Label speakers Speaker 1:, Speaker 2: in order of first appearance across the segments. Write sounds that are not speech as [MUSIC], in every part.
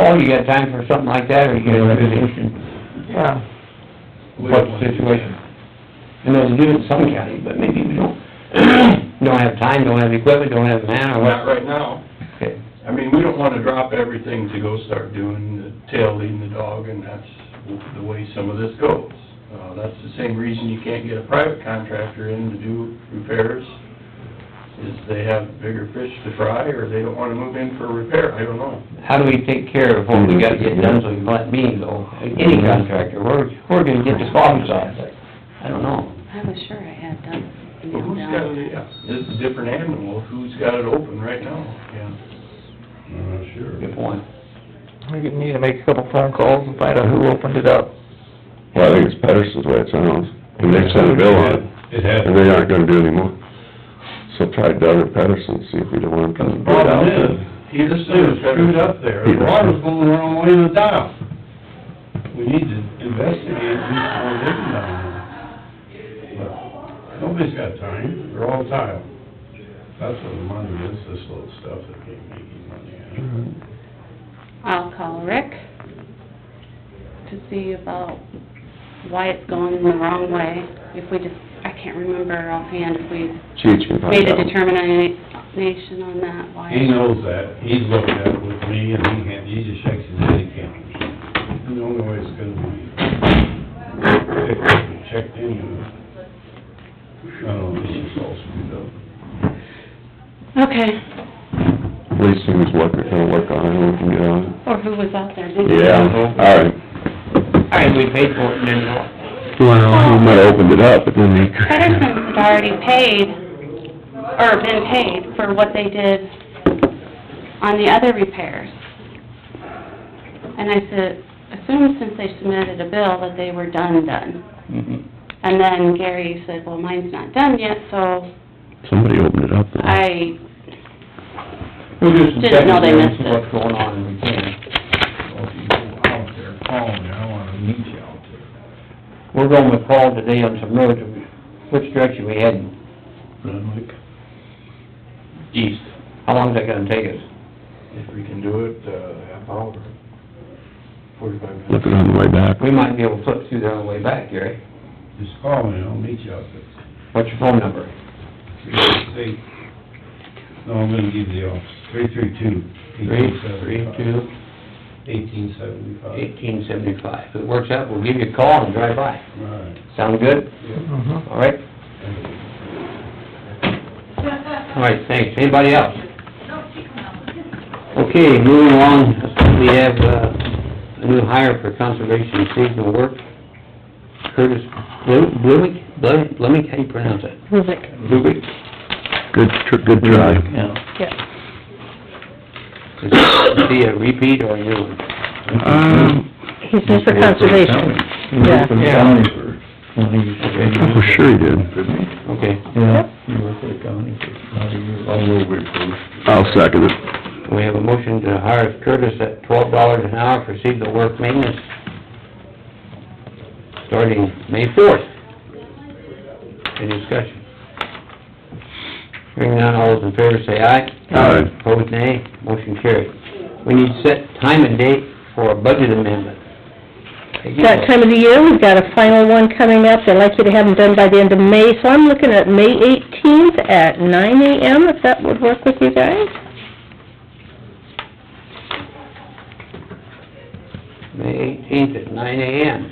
Speaker 1: Oh, you got time for something like that, or you get a resolution? Yeah. What's the situation? I know they do in some counties, but maybe we don't, [CLEARS THROAT] don't have time, don't have equipment, don't have man, or
Speaker 2: Not
Speaker 1: what?
Speaker 2: right now.
Speaker 1: Okay.
Speaker 2: I mean, we don't wanna drop everything to go start doing the tail leading the dog, and that's the way some of this goes. Uh, that's the same reason you can't get a private contractor in to do repairs, is they have bigger fish to fry, or they don't wanna move in for a repair, I don't know.
Speaker 1: How do we take care of what we gotta get done, so we can let me go, any contractor, where, where do we get the problem solved? I don't know.
Speaker 3: I was sure I had done.
Speaker 2: But who's got it, yeah, this is a different animal, who's got it open right now, yeah.
Speaker 1: Good point.
Speaker 4: We could need to make a couple phone calls and find out who opened it up.
Speaker 5: Well, I think it's Pedersen's way it sounds, and they sent a bill on it. It has. And they aren't gonna do any more. So try Doug or Pedersen, see if we don't want them to bid out then.
Speaker 2: Either side is screwed up there,
Speaker 5: The water's
Speaker 2: going the wrong way to the top. We need to investigate who's going in down there. Nobody's got time, they're all tile. That's what the money is, this little stuff that they make you money on.
Speaker 3: I'll call Rick to see about why it's going the wrong way. If we just, I can't remember offhand if we
Speaker 5: Cheech can find
Speaker 3: made a
Speaker 5: out.
Speaker 3: determination on that, why.
Speaker 2: He knows that, he's looked at it with me, and he can't, he just shakes his head, he can't. The only way it's gonna be fixed, checked in, and, I don't know, this is all screwed up.
Speaker 3: Okay,
Speaker 5: Least thing is what they're gonna work on, and we can get on it.
Speaker 3: or who was out there, did you?
Speaker 5: Yeah, alright.
Speaker 1: Alright, we paid for it, and then what?
Speaker 5: Well, you might have opened it up, but then
Speaker 3: [LAUGHS]
Speaker 5: they.
Speaker 3: Pedersen's had already paid, or been paid for what they did on the other repairs. And I said, assume since they submitted a bill that they were done, done.
Speaker 1: Mhm.
Speaker 3: And then Gary said, well, mine's not done yet, so
Speaker 5: [LAUGHS] Somebody opened it up though.
Speaker 3: I,
Speaker 1: We'll do some
Speaker 3: Didn't know they
Speaker 1: checking and see
Speaker 3: missed it.
Speaker 1: what's going on, and we can.
Speaker 2: Well, if you go out there, call me, I wanna meet you out there.
Speaker 1: We're going with Paul today on some roads, which direction we heading?
Speaker 2: Renwick? East.
Speaker 1: How long's that gonna take us?
Speaker 2: If we can do it, uh, half hour, forty-five minutes.
Speaker 5: Looking on the way back.
Speaker 1: We might be able to flip through there on the way back, Gary.
Speaker 2: Just call me, I'll meet you out there.
Speaker 1: What's your phone number?
Speaker 2: Say, no, I'm gonna give you the office, three, three, two.
Speaker 1: Three, three, two,
Speaker 2: Eighteen seventy-five.
Speaker 1: eighteen seventy-five. If it works out, we'll give you a call and drive by.
Speaker 2: Right.
Speaker 1: Sound good?
Speaker 4: Mm-hmm.
Speaker 1: All right? All right, thanks. Anybody else? Okay, moving along, we have, uh, a new hire for conservation seasonal work. Curtis Blu- Bluick, Blu- Blumick, how do you pronounce it? Bluick.
Speaker 5: Good, tr- good try.
Speaker 1: Yeah. Is it be a repeat or a new one?
Speaker 5: Um.
Speaker 6: He's just for conservation. Yeah.
Speaker 1: Yeah.
Speaker 5: For sure you did.
Speaker 1: Okay,
Speaker 5: I'll second it.
Speaker 1: we have a motion to hire Curtis at twelve dollars an hour for seasonal work maintenance, starting May fourth. Any discussion? Hearing none, all those in favor say aye.
Speaker 5: Aye.
Speaker 1: Opposed, nay. Motion carried. We need to set time and date for a budget amendment. Peggy?
Speaker 6: That time of the year, we've got a final one coming up, I'd like you to have them done by the end of May, so I'm looking at May eighteenth at nine AM, if that would work with you guys?
Speaker 1: May eighteenth at nine AM.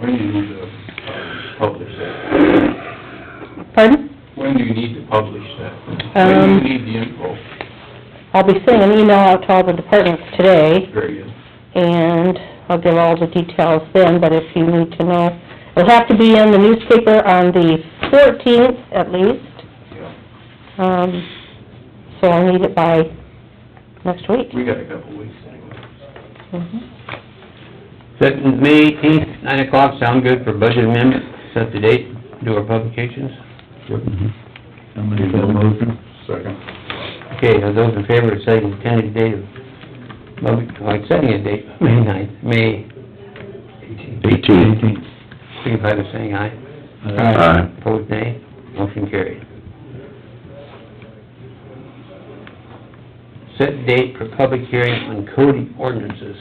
Speaker 2: When do you need to uh, publish that?
Speaker 6: Pardon?
Speaker 2: When do you need to publish that? When
Speaker 6: Um,
Speaker 2: do you need the info?
Speaker 6: I'll be sending an email out to all the departments today,
Speaker 2: Very good.
Speaker 6: and I'll give all the details then, but if you need to know, it'll have to be in the newspaper on the fourteenth at least,
Speaker 2: Yeah.
Speaker 6: um, so I'll need it by next week.
Speaker 2: We got a couple weeks anyway.
Speaker 6: Mhm.
Speaker 1: Set May eighteenth, nine o'clock, sound good for budget amendment, set the date, do our publications.
Speaker 2: Second.
Speaker 1: Okay, are those in favor of setting the tentative date of, public- oh, like setting a date, May ninth, May
Speaker 5: Eighteen.
Speaker 1: signify by saying aye.
Speaker 5: Aye.
Speaker 1: Opposed, nay. Motion carried. set date for public hearing on coding ordinances.